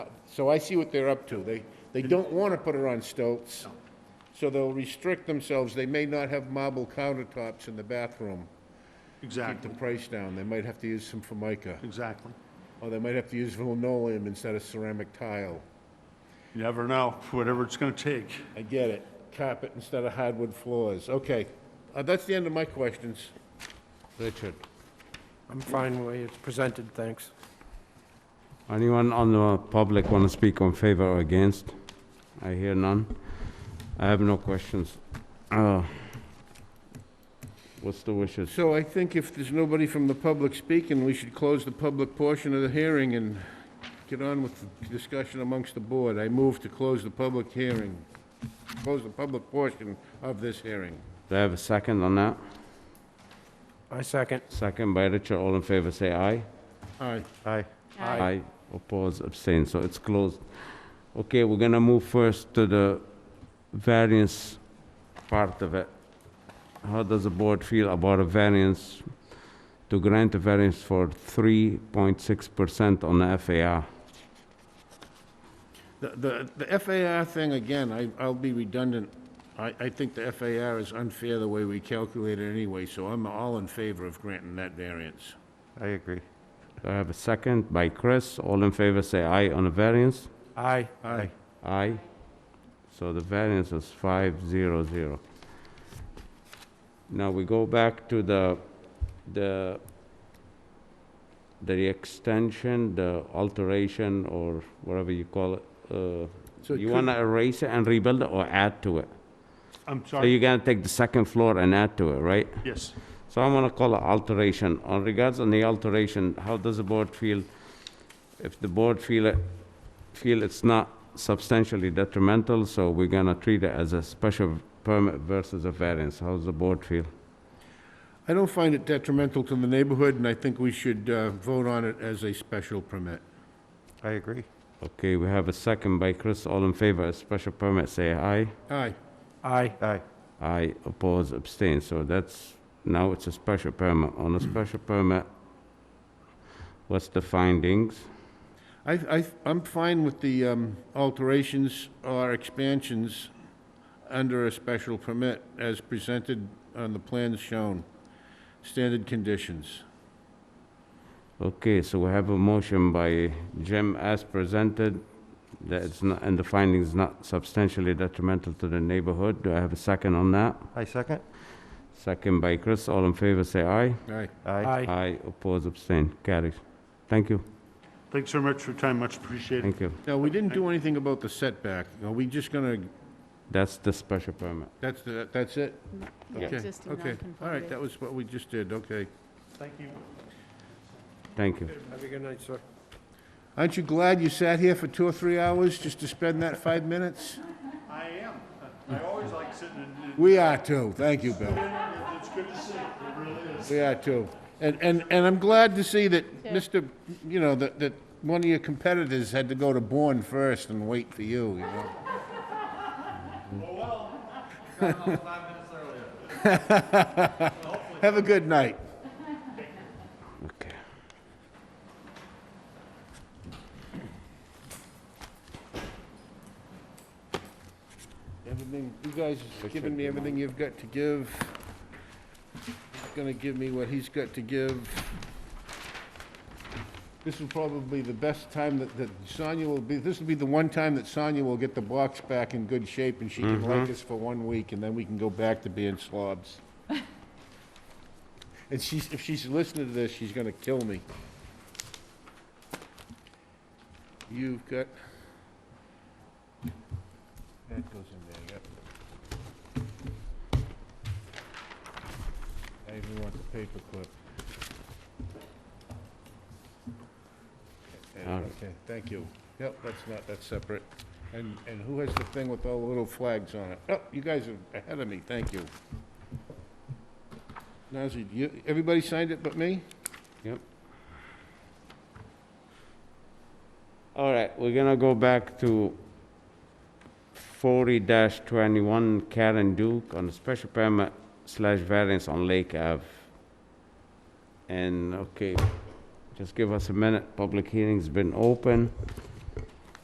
So I see what they're up to. They, they don't want to put it on stilts, so they'll restrict themselves. They may not have marble countertops in the bathroom. Keep the Exactly, price down. They might have to use some formica, exactly. or they might have to use linoleum instead of ceramic tile. You never know, whatever it's gonna take. I get it. Carpet instead of hardwood floors. Okay, Uh, that's the end of my questions. Richard? I'm fine the way it's presented, thanks. Anyone on the public want to speak on favor or against? I hear none. I have no questions. Uh, What's the wishes? So I think if there's nobody from the public speaking, we should close the public portion of the hearing and get on with the discussion amongst the board. I move to close the public hearing, close the public portion of this hearing. Do I have a second on that? I second. Second by Richard, all in favor, say aye. Aye. Aye. Aye. Aye, oppose, abstain, so it's closed. Okay, we're gonna move first to the variance part of it. How does the board feel about a variance, to grant a variance for 3.6% on the FAR? The, the the FAR thing, again, I, I'll be redundant. I, I think the FAR is unfair the way we calculate it anyway, so I'm all in favor of granting that variance. I agree. Do I have a second by Chris? All in favor, say aye on the variance. Aye. Aye. Aye. So the variance is five zero zero. Now we go back to the, the, the extension, the alteration, or whatever you call it. Uh, So You could- wanna erase it and rebuild it or add to it? I'm So sorry, you're gonna take the second floor and add to it, right? yes. So I'm gonna call it alteration. On regards on the alteration, how does the board feel? If the board feel it, feel it's not substantially detrimental, so we're gonna treat it as a special permit versus a variance. How's the board feel? I don't find it detrimental to the neighborhood, and I think we should uh, vote on it as a special permit. I agree. Okay, we have a second by Chris. All in favor, of special permit, say aye. Aye. Aye. Aye. Aye, oppose, abstain. So that's, now it's a special permit. On a special permit, what's the findings? I, I, I'm fine with the um, alterations or expansions under a special permit as presented on the plans shown. Standard conditions. Okay, so we have a motion by Jim as presented, that it's not, and the findings not substantially detrimental to the neighborhood. Do I have a second on that? I second. Second by Chris, all in favor, say aye. Aye. Aye. Aye. Aye, oppose, abstain, carries. Thank you, Thanks very much for your time, much appreciated. thank you. Now, we didn't do anything about the setback. Are we just gonna, That's the special permit. that's, the that's it? Yeah. Okay, Existing Okay, all right, nonconformity. that was what we just did, okay. Thank you. Thank you. Have a good night, sir. Aren't you glad you sat here for two or three hours just to spend that five minutes? I am. I always like sitting in, We are too, thank you, Bill. it's good to see, it really is. We are too. And, and, and I'm glad to see that Yeah. Mr., you know, that, that one of your competitors had to go to Bourne first and wait for you, you know? Have a good night. Okay. Everything, you guys have given me everything you've got to give. He's gonna give me what he's got to give. This is probably the best time that, that Sonia will be, this will be the one time that Sonia will get the box back in good shape and she can like us for one week and then we can go back to being slobs. And she's, if she's listening to this, she's gonna kill me. You've got, that goes in there, yep. I even want the paper clip. Okay, All right. Okay, thank you. Yep, that's not, that's separate. And, and who has the thing with all the little flags on it? Oh, you guys are ahead of me, thank you. Nazir, you, everybody signed it but me? All right, we're gonna go back to forty twenty-one Karen Duke on a special permit slash variance on Lake Ave. And, okay, just give us a minute, public hearing's been open.